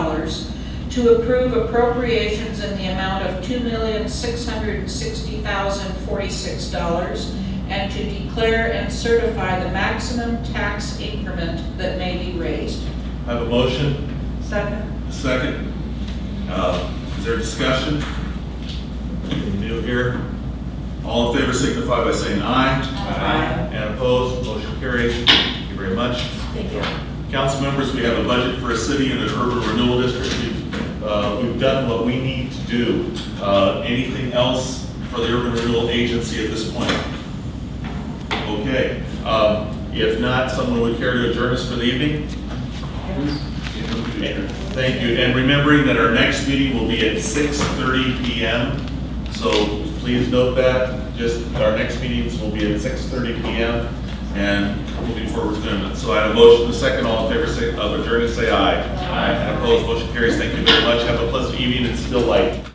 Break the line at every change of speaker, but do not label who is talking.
to approve appropriations in the amount of $2,660,046 and to declare and certify the maximum tax increment that may be raised.
I have a motion,
Second.
a second. Uh, Is there discussion? Anything New here? All in favor signify by saying aye.
Aye.
And opposed, motion carries. Thank you very much.
Thank you.
Council members, we have a budget for a city and an urban renewal district. We've, uh, We've done what we need to do. Uh, Anything else for the urban renewal agency at this point? Okay, Um, if not, someone would care to adjourn us for the evening? Thank you, and remembering that our next meeting will be at 6:30 PM, so please note that, just, our next meetings will be at 6:30 PM, and moving forward with them. So I have a motion, a second, all in favor, say, of adjourned, say aye. Aye. Opposed, motion carries, thank you very much, have a pleasant evening, it's still light.